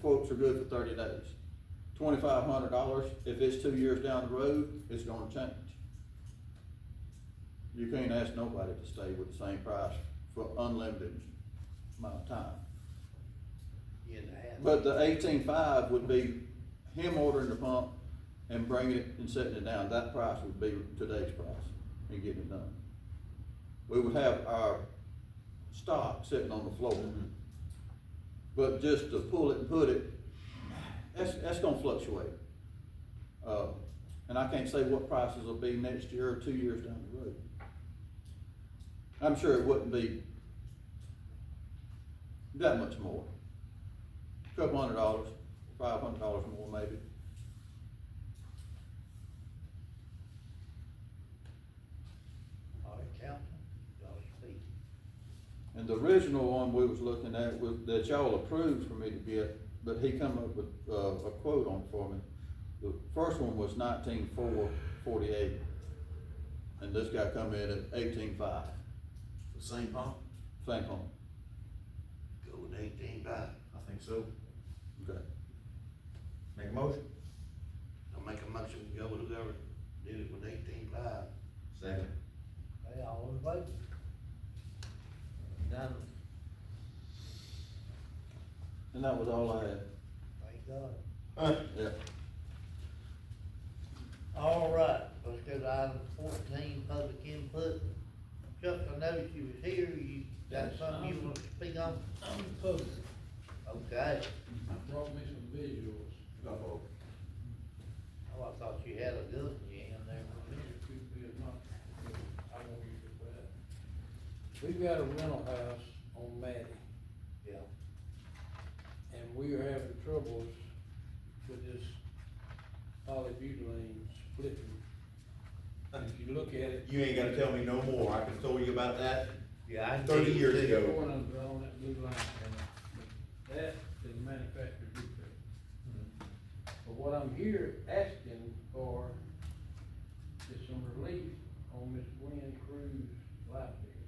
quotes are good for thirty days. Twenty-five hundred dollars, if it's two years down the road, it's gonna change. You can't ask nobody to stay with the same price for unlimited amount of time. year and a half. But the eighteen-five would be him ordering the pump and bringing it and setting it down, that price would be today's price and getting it done. We would have our stock sitting on the floor. But just to pull it and put it, that's, that's gonna fluctuate. Uh, and I can't say what prices will be next year or two years down the road. I'm sure it wouldn't be that much more. Couple hundred dollars, five hundred dollars more maybe. All right, Councilman, y'all speak. And the original one we was looking at was, that y'all approved for me to get, but he come up with, uh, a quote on it for me. The first one was nineteen four forty-eight, and this guy come in at eighteen five, The same pump? same home, Go with eighteen five. I think so. okay. Make a motion? I'll make a motion to go with whoever did it with eighteen five. Second. Hey, all in favor? Done. And that was all I had, Thank God. yeah. All right, let's go to item fourteen, public input. Chuck, I noticed you was here, you got something you want to speak on? I'm opposed. Okay, I brought me some visuals. Uh-oh. oh, I thought you had a good one you in there for a minute. If you did not, I won't use it for that. We've got a rental house on Matty, Yeah, and we are having troubles with this polybutylene splitting. If you look at it. You ain't gotta tell me no more, I can tell you about that. yeah, I. can Thirty see years it too. ago. Corners on that blue line, and that is manufactured defect. But what I'm here asking for is some relief on Miss Gwen Cruz life bill.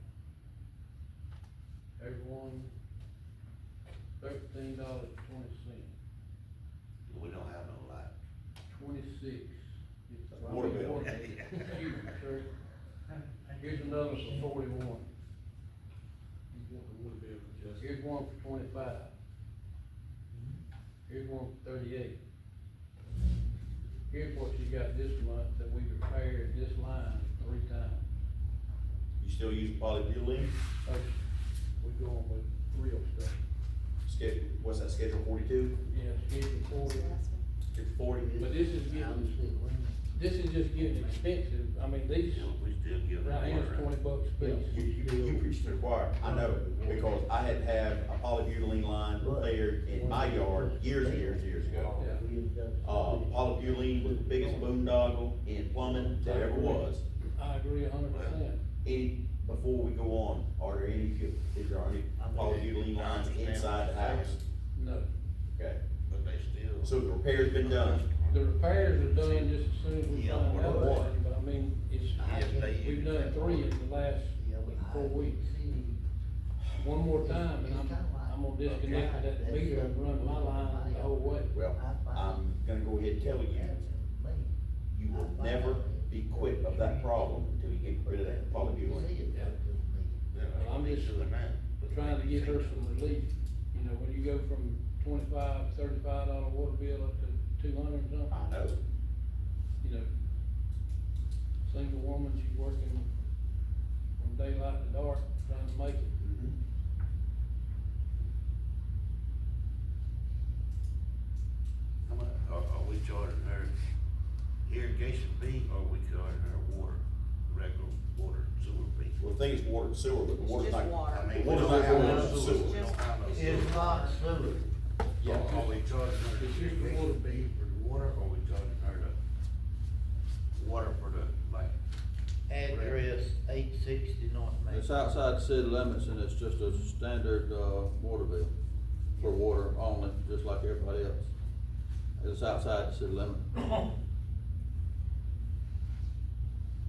Everyone, thirteen dollars twenty cents, We don't have no light. twenty-six. It's like- Water bill. Excuse me, sir. Here's another for forty-one. Here's one for twenty-five. Here's one for thirty-eight. Here's what you got this month that we repaired this line three times. You still use polybutylene? So, We going with real stuff. Schedule, what's that, schedule forty-two? Yeah, it's getting forty, Schedule forty? but this is I don't see getting, it. this is just getting expensive. I mean, these, Still- We still give it. right here is twenty bucks a You, piece. you, you preach to the choir, I know, because I had to have a polybutylene line layered in my yard years and years and years ago. Uh, polybutylene was the biggest boondoggle in plumbing that ever was. I agree a hundred percent. Any, before we go on, are there any, is there any polybutylene lines inside the house? No. Okay, But they still. so the repair's been done. The repairs are done just as soon as we Yeah, find out, what? about it, but I mean, it's, Yes, they- we've done three in the last like, four weeks. One more time, and I'm, I'm gonna disconnect that meter and run my line the whole way. Well, I'm gonna go ahead and tell you, you will never be quit of that problem until you get rid of that polybutylene. Well, I'm just Trying to get her some relief, you know, when you go from twenty-five, thirty-five dollar water bill up to two hundred and something, I know, you know. Single woman, she's working from daylight to dark, trying to make it. Mm-hmm. How much, are, are we charging her irrigation fee, or are we charging her water, regular water sewer fee? well, the thing is water and sewer, but the It's water's just not. water. I mean, The we water's don't not have going no into the sewer, we sewer. don't have no sewer. It's not sewer. So Are we charging her It's just the water irrigation fee for the water, or are we charging her the water for the, like? Address eight sixty North Main. It's outside the city limits and it's just a standard, uh, water bill for water only, just like everybody else. It's outside the city limit.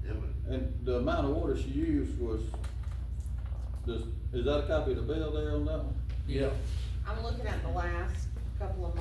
it would- And the amount of water she used was, does, is that a copy of the bill there on that one? Yeah. I'm looking at the last couple of